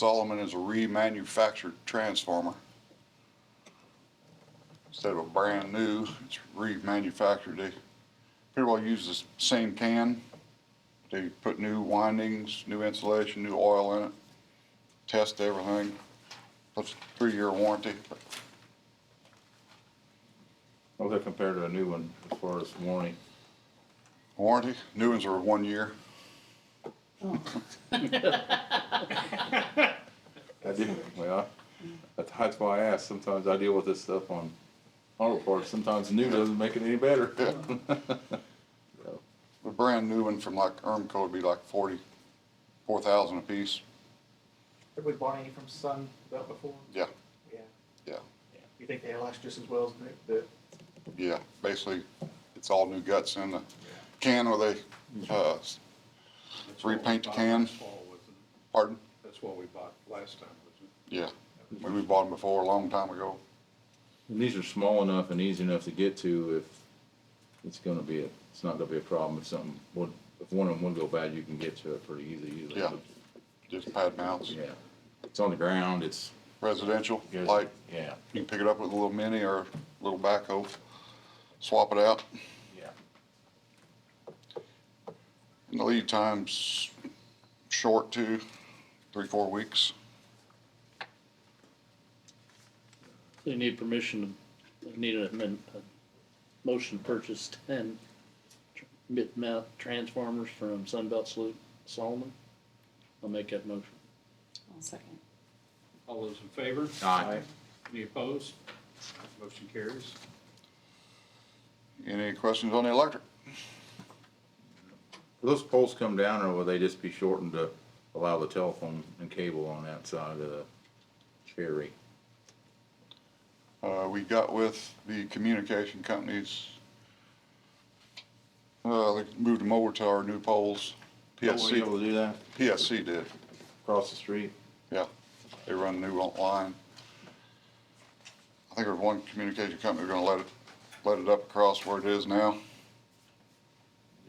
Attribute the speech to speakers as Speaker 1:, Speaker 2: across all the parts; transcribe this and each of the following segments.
Speaker 1: Solomon is a remanufactured transformer. Instead of a brand new, it's remanufactured. They pretty well use the s- same can. They put new windings, new insulation, new oil in it, test everything. Plus three-year warranty.
Speaker 2: How's that compared to a new one as far as warranty?
Speaker 1: Warranty, new ones are one year.
Speaker 2: I do, well, that's- that's why I ask, sometimes I deal with this stuff on auto parts, sometimes new doesn't make it any better. So,
Speaker 1: A brand new one from like Ermco would be like forty, four thousand apiece.
Speaker 3: Have we bought any from Sun Belt before?
Speaker 1: Yeah,
Speaker 3: Yeah.
Speaker 1: yeah.
Speaker 3: You think they last just as well as Nick, the,
Speaker 1: Yeah, basically, it's all new guts in the can where they, uh, s-
Speaker 4: That's what we
Speaker 1: Repaint the
Speaker 4: bought
Speaker 1: can.
Speaker 4: last fall, wasn't it?
Speaker 1: pardon?
Speaker 4: That's what we bought last time, wasn't it?
Speaker 1: Yeah, when we bought them before, a long time ago.
Speaker 2: And these are small enough and easy enough to get to if it's gonna be, a it's not gonna be a problem if something, would- if one of them would go bad, you can get to it pretty easy usually.
Speaker 1: Yeah. Just pad mounts,
Speaker 2: Yeah, it's on the ground, it's,
Speaker 1: residential,
Speaker 2: it's-
Speaker 1: light.
Speaker 2: yeah,
Speaker 1: You can pick it up with a little mini or a little backhoe, swap it out.
Speaker 2: yeah.
Speaker 1: And the lead time's short too, three, four weeks.
Speaker 5: They need permission, to- they need a, min- a motion to purchase ten tr- mid-mount transformers from Sunbelt Solu- Solomon. I'll make that motion.
Speaker 6: I'll second.
Speaker 4: All those in favor?
Speaker 2: Aye.
Speaker 4: Any opposed? Motion carries.
Speaker 1: Any questions on the electric?
Speaker 2: Will those poles come down or will they just be shortened to allow the telephone and cable on that side of the cherry?
Speaker 1: Uh, we got with the communication companies. Uh, they moved them over to our new poles.
Speaker 2: Will we be able
Speaker 1: PSC,
Speaker 2: to do that
Speaker 1: PSC did,
Speaker 2: across the street?
Speaker 1: yeah. They run new line. I think there's one communication company, we're gonna let it, let it up across where it is now.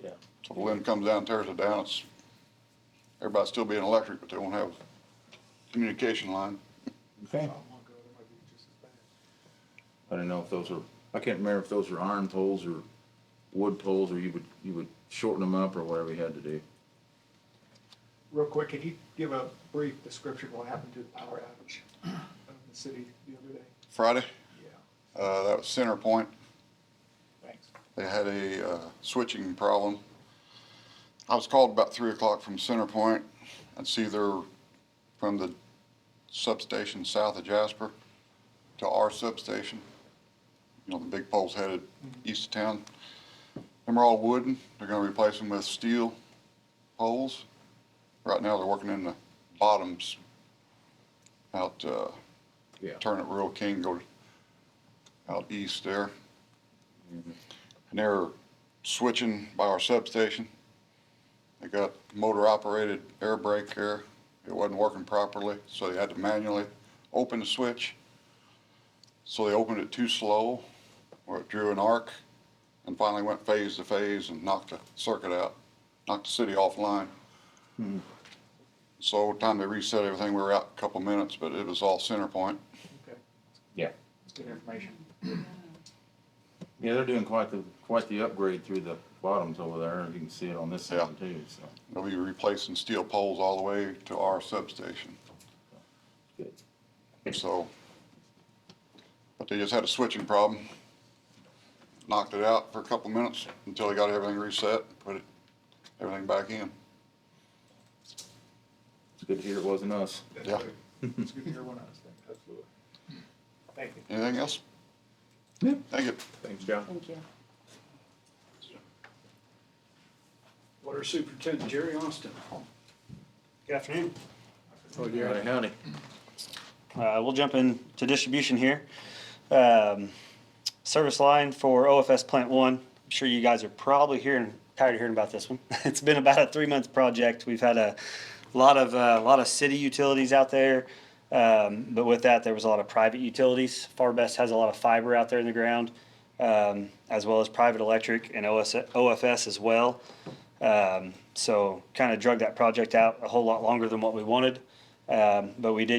Speaker 2: Yeah.
Speaker 1: So the wind comes down, tears it down, it's, everybody's still being electric, but they won't have communication line.
Speaker 2: Okay.
Speaker 3: oh my god, that might be just as bad.
Speaker 2: I don't know if those are, I can't remember if those were iron poles or wood poles or you would, you would shorten them up or whatever you had to do.
Speaker 3: Real quick, can you give a brief description of what happened to the power outage uh, in the city the other day?
Speaker 1: Friday,
Speaker 3: Yeah.
Speaker 1: uh, that was Center Point.
Speaker 3: Thanks.
Speaker 1: They had a uh, switching problem. I was called about three o'clock from Center Point. It's either from the substation south of Jasper to our substation. You know, the big poles headed east of town. Them are all wooden. They're gonna replace them with steel poles. Right now, they're working in the bottoms out, uh,
Speaker 2: Yeah.
Speaker 1: turn at Rural King, go out east there and they're switching by our substation. They got motor operated air brake there. It wasn't working properly, so they had to manually open the switch. So they opened it too slow, where it drew an arc, and finally went phase to phase and knocked the circuit out, knocked the city offline. So time they reset everything, we were out a couple minutes, but it was all center point.
Speaker 3: Okay,
Speaker 2: Yeah.
Speaker 3: that's good information.
Speaker 2: Yeah, they're doing quite the, quite the upgrade through the bottoms over there. You can see it on this
Speaker 1: Yeah.
Speaker 2: side too, so.
Speaker 1: They'll be replacing steel poles all the way to our substation.
Speaker 2: Good.
Speaker 1: So, but they just had a switching problem. Knocked it out for a couple minutes until they got everything reset, put it, everything back in.
Speaker 2: It's good to hear it wasn't us.
Speaker 3: That's
Speaker 1: Yeah.
Speaker 3: good. It's good to hear one of those things. Absolutely. Thank you.
Speaker 1: Anything else?
Speaker 2: Yeah.
Speaker 1: Thank you.
Speaker 2: Thanks, John.
Speaker 6: Thank you.
Speaker 4: Water Superintendent Jerry Austin.
Speaker 7: Good afternoon.
Speaker 2: Howdy, howdy.
Speaker 7: Uh, We'll jump into distribution here. Um, Service line for OFS Plant One. I'm sure you guys are probably hearing, tired of hearing about this one. It's been about a three-month project. We've had a lot of, a lot of city utilities out there. Um, But with that, there was a lot of private utilities. Farbest has a lot of fiber out there in the ground, um, as well as private electric and OS OFS as well. Um, so kind of drug that project out a whole lot longer than what we wanted. Um, but we did